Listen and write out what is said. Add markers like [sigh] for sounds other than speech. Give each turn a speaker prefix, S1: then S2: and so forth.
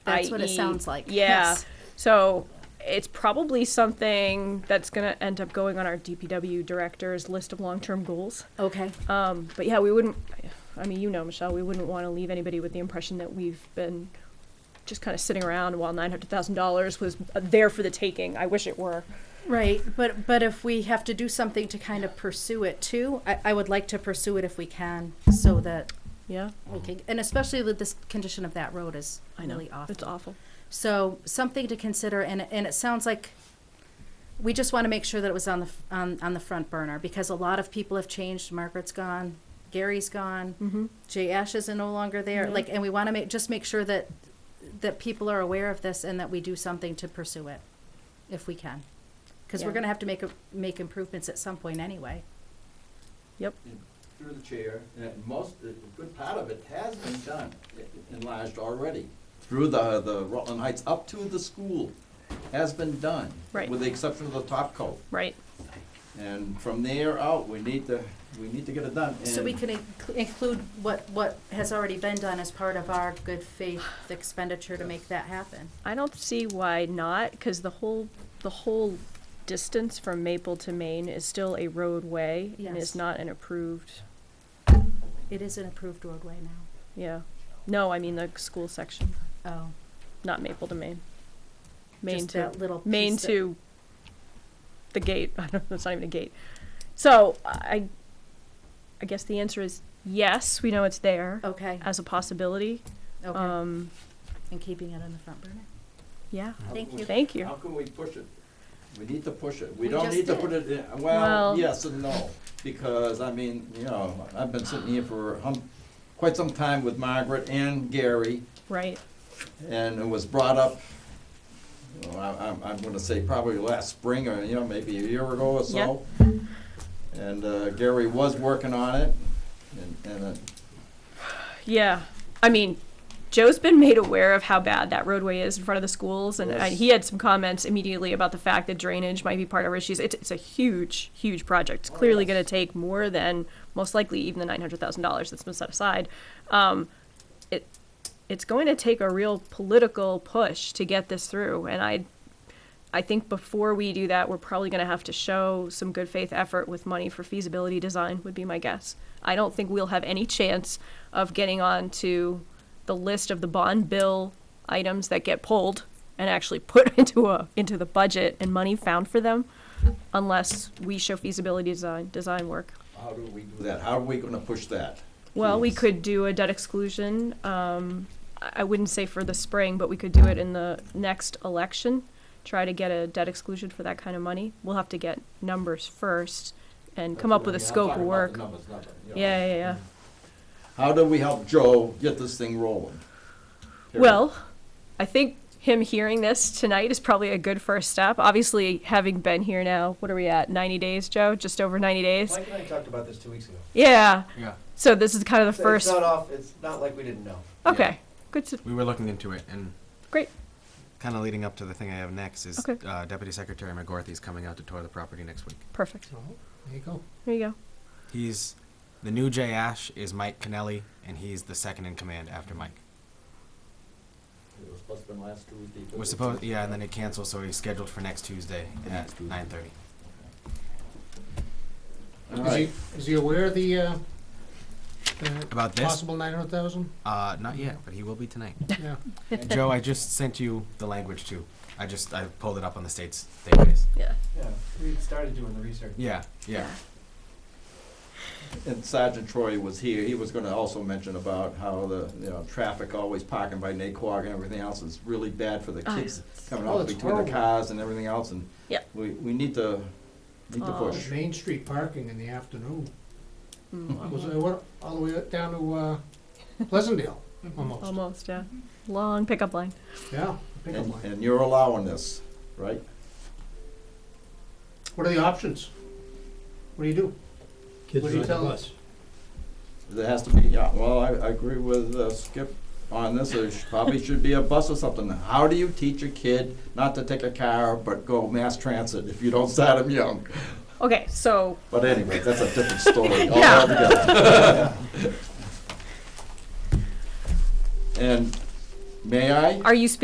S1: That's what it
S2: IE.
S1: sounds like.
S2: E. Yeah.
S1: Yes.
S2: So it's probably something that's going to end up going on our DPW director's list of long-term goals.
S1: Okay.
S2: Um, but yeah, we wouldn't. I mean, you know, Michelle, we wouldn't want to leave anybody with the impression that we've been just kind of sitting around while nine hundred thousand dollars was there for the taking. I wish it were.
S1: Right, but, but if we have to do something to kind of pursue it too, I, I would like to pursue it if we can, so that
S2: Yeah,
S1: we can, and especially with this condition of that road is
S2: I know.
S1: really awful.
S2: It's awful.
S1: So something to consider, and, and it sounds like we just want to make sure that it was on the, f- on, on the front burner, because a lot of people have changed. Margaret's gone, Gary's gone,
S2: Mm-hmm.
S1: Jay Ash is no longer there, like, and we want to make, just make sure that, that people are aware of this and that we do something to pursue it, if we can. Because we're
S2: Yeah.
S1: going to have to make, a- make improvements at some point anyway.
S2: Yep.
S3: through the chair, and most, a good part of it has been done, enlarged already. Through the, the Rutland Heights up to the school has been done.
S2: Right.
S3: With the exception of the top coat.
S2: Right.
S3: And from there out, we need to, we need to get it done.
S1: So we
S3: And
S1: can inc- include what, what has already been done as part of our good faith expenditure to make that happen.
S2: I don't see why not, because the whole the whole distance from Maple to Maine is still a roadway and
S1: Yes.
S2: is not an approved.
S1: It is an approved roadway now.
S2: Yeah. No, I mean the school section,
S1: Oh.
S2: not Maple to Maine. Maine
S1: Just
S2: to
S1: that little
S2: Maine
S1: piece that-
S2: to the gate. [laughs] I don't know. It's not even a gate. So I, I guess the answer is yes. We know it's there
S1: Okay,
S2: as a possibility.
S1: okay,
S2: Um,
S1: and keeping it on the front burner.
S2: yeah.
S3: how
S1: Thank
S3: can
S1: you.
S3: we-
S2: Thank you.
S3: How can we push it? We need to push it.
S1: We
S3: We don't
S1: just
S3: need to
S1: did.
S3: put it in,
S2: Well-
S3: well, yes and no. Because, I mean, you know, I've been sitting here for hum- quite some time with Margaret and Gary.
S2: Right.
S3: and it was brought up, well, I- I'm, I'm gonna say probably last spring, or, you know, maybe a year ago or so. And uh, Gary was working on it, and, and uh, it-
S2: Yeah. I mean, Joe's been made aware of how bad that roadway is in front of the schools, and uh,
S3: Yes.
S2: he had some comments immediately about the fact that drainage might be part of our issues. It's, it's a huge, huge project. It's
S3: Oh,
S2: clearly
S3: yes.
S2: going to take more than most likely even the nine hundred thousand dollars that's been set aside. Um, it it's going to take a real political push to get this through, and I. I think before we do that, we're probably going to have to show some good faith effort with money for feasibility design, would be my guess. I don't think we'll have any chance of getting on to the list of the bond bill items that get pulled and actually [laughs] put into a into the budget and money found for them unless we show feasibility design design work.
S3: how do we do that? How are we gonna push that?
S2: Well, we
S3: Please.
S2: could do a debt exclusion. Um, I I wouldn't say for the spring, but we could do it in the next election. Try to get a debt exclusion for that kind of money. We'll have to get numbers first and come up with a
S3: I mean, I'm
S2: scope
S3: talking
S2: of
S3: about
S2: work.
S3: the numbers, not the- you know.
S2: Yeah, yeah, yeah.
S3: How do we help Joe get this thing rolling? Period.
S2: Well, I think him hearing this tonight is probably a good first step. Obviously, having been here now, what are we at? 90 days, Joe? Just over 90 days?
S4: Mike and I talked about this two weeks ago.
S2: Yeah.
S5: Yeah,
S2: So this is kind of the
S4: So
S2: first.
S4: It's not off, it's not like we didn't know.
S2: Okay. Good. To,
S5: we were looking into it, and
S2: great.
S5: kind of leading up to the thing I have next is
S2: Okay.
S5: uh, Deputy Secretary McGorthy's coming out to tour the property next week.
S2: Perfect.
S4: There you go.
S2: There you go.
S5: He's the new Jay Ash is Mike Kennelly, and he's the second in command after Mike.
S3: It was supposed to be last Tuesday, but it's-
S5: Was supposed, yeah, and then it canceled, so he's scheduled for next Tuesday
S3: Next
S5: at
S3: Tuesday.
S5: nine thirty.
S3: All
S6: Is
S3: right.
S6: he, is he aware of the, uh, the
S5: About this?
S6: possible nine hundred thousand?
S5: Uh, not yet, but he will be tonight.
S6: [laughs] Yeah.
S5: Joe, I just sent you the language too. I just I pulled it up on the state's database.
S2: Yeah.
S4: Yeah, we started doing the research.
S5: Yeah, yeah.
S3: And Sergeant Troy was here, he was gonna also mention about how the, you know, traffic always parking by Naquag and everything else is really bad for the
S2: Oh,
S3: kids coming
S6: Oh,
S3: out
S6: it's
S3: between the
S6: horrible.
S3: cars and everything else, and
S2: Yeah.
S3: we, we need to, need to
S2: Oh.
S3: push.
S6: Main Street parking in the afternoon.
S2: Mm,
S6: Was, it what, all the way up down to, uh, Pleasantdale, almost.
S2: Almost, yeah. Long pickup line.
S6: Yeah, pickup
S3: And,
S6: line.
S3: and you're allowing this, right?
S6: What are the options? What do you do? What do you tell us?
S3: There has to be, yeah, well, I, I agree with uh, Skip on this, there sh- probably should be a bus or something. How do you teach a kid not to take a car, but go mass transit if you don't start them young?
S2: Okay, so
S3: But anyway, that's a different story
S2: Yeah.
S3: altogether. And
S7: May I?
S3: Are you speaking